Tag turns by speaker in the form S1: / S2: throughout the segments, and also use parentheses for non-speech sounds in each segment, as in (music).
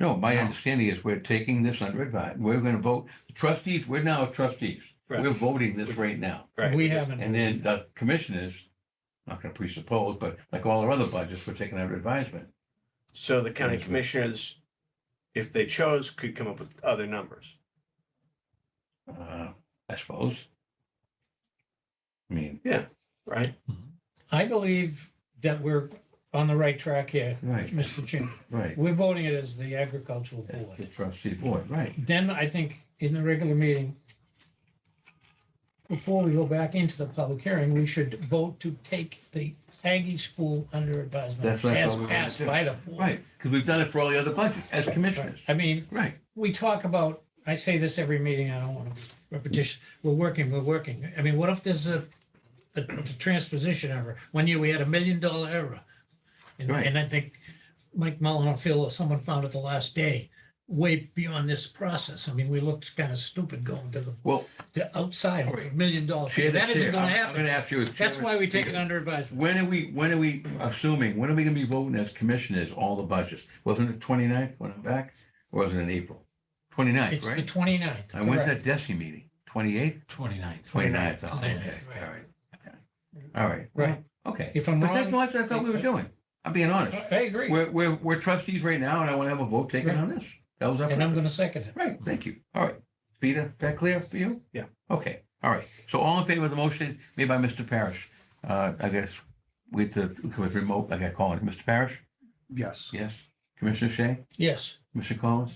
S1: No, my
S2: No.
S1: understanding is we're taking this under advisement. We're gonna vote, trustees, we're now trustees. We're
S2: Correct.
S1: voting this right now.
S2: Correct.
S3: We
S2: It's just-
S3: haven't.
S1: And then the commissioners, not gonna presuppose, but like all our other budgets, we're taking under advisement.
S2: So the county
S1: Yes, we-
S2: commissioners, if they chose, could come up with other numbers.
S1: Uh, I suppose. I mean,
S2: right?
S3: I believe that we're on the right track here,
S1: right,
S3: Mr. Chairman.
S1: right.
S3: We're voting it as the agricultural
S1: That's The
S3: board.
S1: trustee board, right.
S3: Then I think in the regular meeting, before we go back into the public hearing, we should vote to take the Aggie School under
S1: That's
S3: advisement
S1: what I
S3: as
S1: thought we were gonna
S3: passed
S1: do.
S3: by the board.
S1: Right, because we've done it for all the other budgets as commissioners.
S3: I mean,
S1: Right,
S3: we talk about, I say this every meeting, I don't want to repetition, we're working, we're working. I mean, what if there's a, a transposition error? One year we had a million dollar error. And,
S1: Right.
S3: and I think Mike Mullin or Phil or someone found it the last day, way beyond this process. I mean, we looked kind of stupid going to the,
S1: well,
S3: to outside of a million dollars.
S1: chair.
S3: That isn't going to
S1: I'm gonna
S3: happen.
S1: ask you. as
S3: That's
S1: chairman,
S3: why we take it
S1: because-
S3: under advisement.
S1: When are we, when are we assuming, when are we gonna be voting as commissioners, all the budgets? Wasn't it 29th when I'm back? Or was it in April? 29th,
S3: It's the
S1: right?
S3: 29th.
S1: And when's
S3: correct.
S1: that DESI meeting? Twenty-eighth,
S4: 29th.
S1: twenty-ninth? oh, Okay, all
S3: 29th, right.
S1: right. Okay. All right.
S3: Right.
S1: Okay.
S3: If I'm
S1: But that's
S3: wrong,
S1: not what I thought we were doing. I'm being honest.
S3: I agree.
S1: We're, we're, we're trustees right now and I want to have a vote taken
S3: Right.
S1: on this. That was our
S3: And I'm
S1: purpose.
S3: going to second it.
S1: Right, thank you. All right. Peter, is that clear for you?
S2: Yeah.
S1: Okay, all right. So all in favor of the motion made by Mr. Parrish? Uh, I guess with the, with remote, I got calling. Mr. Parrish?
S5: Yes.
S1: Yes. Commissioner Shea?
S3: Yes.
S1: Mr. Collins?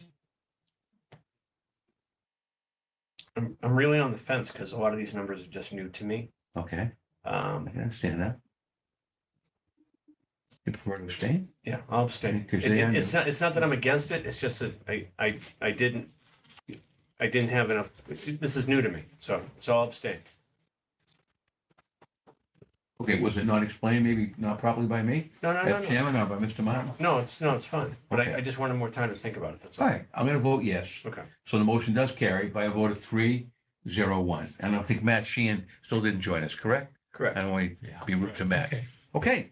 S2: I'm, I'm really on the fence because a lot of these numbers are just new to me.
S1: Okay, I
S2: Um,
S1: can understand that. You prefer to abstain?
S2: yeah, I'll abstain.
S1: Because
S2: It-
S1: they are
S2: it- It's
S1: new.
S2: not, it's not that I'm against it. It's just that I, I, I didn't, I didn't have enough, this is new to me. So, so I'll abstain.
S1: Okay, was it not explained, maybe not properly by me?
S2: No, no, no,
S1: As
S2: no.
S1: chairman or by Mr. Martin?
S2: No, it's, no, it's fine. But
S1: Okay.
S2: I, I just wanted more time to think about it. That's
S1: All
S2: all.
S1: right, I'm going to vote yes.
S2: Okay.
S1: So the motion does carry by a vote of three, zero, one. And I think Matt Sheehan still didn't join us, correct? I
S2: Correct.
S1: don't want
S4: Yeah.
S1: to be rude to Matt.
S3: Okay.
S1: Okay,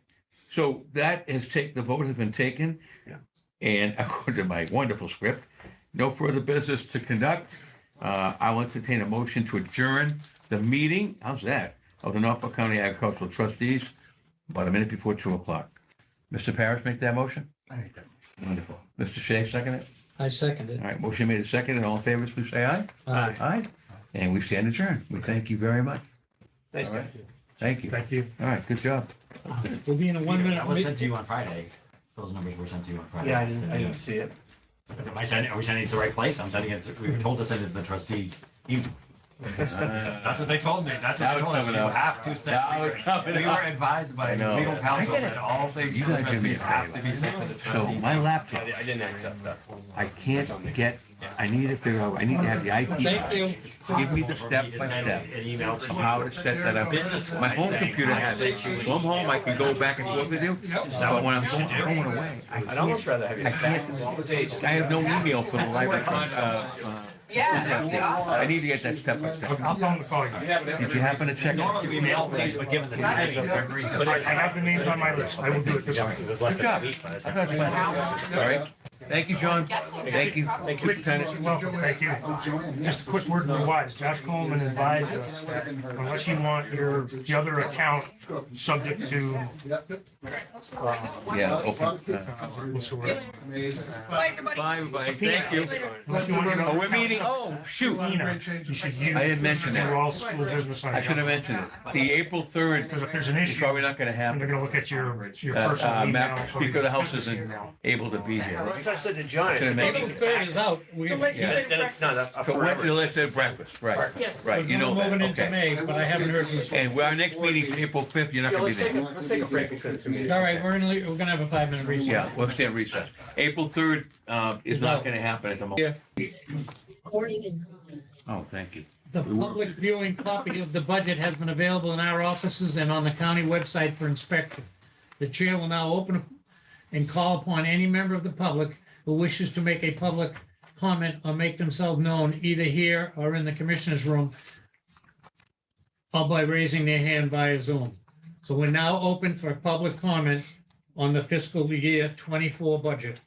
S1: so that has taken, the vote has been taken.
S2: Yeah.
S1: And (laughs) according to my wonderful script, no further business to conduct. Uh, I'll entertain a motion to adjourn the meeting, how's that, of the Norfolk County Agricultural Trustees about a minute before two o'clock. Mr. Parrish make that motion?
S5: I think that-
S1: Wonderful. Mr. Shea, second it?
S3: I second it. Uh,
S1: All right, motion made and seconded. All in favor, please say aye.
S2: Aye.
S1: Aye. And we stand adjourned. We thank you very much.
S2: Thanks,
S1: All
S2: guys.
S1: right. Thank you.
S4: Thank you.
S1: All right, good job.
S3: We'll be in a one
S4: That was
S3: minute.
S4: sent to you on Friday. Those numbers were sent to you on Friday.
S2: Yeah, I didn't, I didn't see it.
S4: Am I sending, are we sending it to the right place? I'm sending it, to- we were told to send it to the trustees. email. That's what they told me. That's what
S1: Now
S4: they
S1: it's
S4: told us. You
S1: coming up.
S4: have to
S1: Now
S4: send.
S1: it's coming
S4: We were
S1: up.
S4: advised by
S1: I know.
S4: legal counsel
S1: I gotta-
S4: that all things
S1: You
S4: from the
S1: gotta do me a
S4: trustees have to
S1: favor.
S4: be sent to the
S1: So
S4: trustees.
S1: my
S2: I
S1: laptop,
S2: di- I didn't access that.
S1: I can't get, I need to figure out, I need to have the IT.
S3: Thank you.
S1: Give me the step by step
S4: An email
S1: of
S4: to
S1: how to set that up.
S4: business.
S1: My home computer has it. Go home, I can go back and forth with you. But when I'm going, going away, I
S2: I'd almost
S1: can't.
S2: rather have you.
S1: I can't, I have no email for the library. Uh, uh,
S6: Yeah, that'd be awesome.
S1: I need to get that step by step.
S7: I'll tell them to call you.
S1: Did you happen to check?
S4: Normally
S1: it?
S4: we mail things, but given the times of every.
S7: But I have the names on my list. I will do it this time.
S4: It was less
S1: Good
S4: than a
S1: job.
S4: week. by the
S1: I
S4: time-
S1: thought it was fine. All right. Thank you, John. Thank you. Thank you, Lieutenant.
S7: Welcome, thank you. Just a quick word to the wise. Josh Coleman advised us, unless you want your, the other account subject to,
S1: Yeah, open. uh,
S7: what's the word?
S6: Bye, everybody.
S1: Bye, everybody. Thank you.
S7: Unless you want your
S1: Oh,
S7: other
S1: we're meeting,
S7: account
S1: oh, shoot.
S7: subject to Nina, You should use.
S1: I didn't mention that.
S7: Your all school business.
S1: I should have mentioned it. The April third
S7: Because if there's an
S1: is
S7: issue,
S1: probably not gonna
S7: they're
S1: happen.
S7: gonna look at your, your
S1: Uh, uh,
S7: personal
S1: Matt,
S7: email. or
S1: Speaker of the House
S7: business
S1: isn't-
S7: email.
S1: Able to be here.
S2: Unless I said to John,
S1: Should've made
S2: maybe
S1: it.
S3: Voting third is out. We,
S6: The
S3: we're
S6: legislative
S2: then it's not
S6: breakfast.
S2: a- a
S1: So what,
S2: Uh, forever.
S1: let's have breakfast, right,
S6: Yes.
S1: right, you know that,
S3: moving into
S1: okay.
S3: May, but I haven't heard from you.
S1: And our next meeting's April fifth, you're not
S2: Yeah,
S1: gonna be
S2: let's take, a-
S1: there.
S2: let's take a break between the two meetings.
S3: All right, we're in, le- we're gonna have a five minute recess.
S1: Yeah, we'll stay in recess. April third, uh, is not gonna happen at the moment. Oh, thank you.
S3: The public viewing copy of the budget has been available in our offices and on the county website for inspection. The chair will now open and call upon any member of the public who wishes to make a public comment or make themselves known either here or in the commissioner's room or by raising their hand via Zoom. So we're now open for public comment on the fiscal year 24 budget.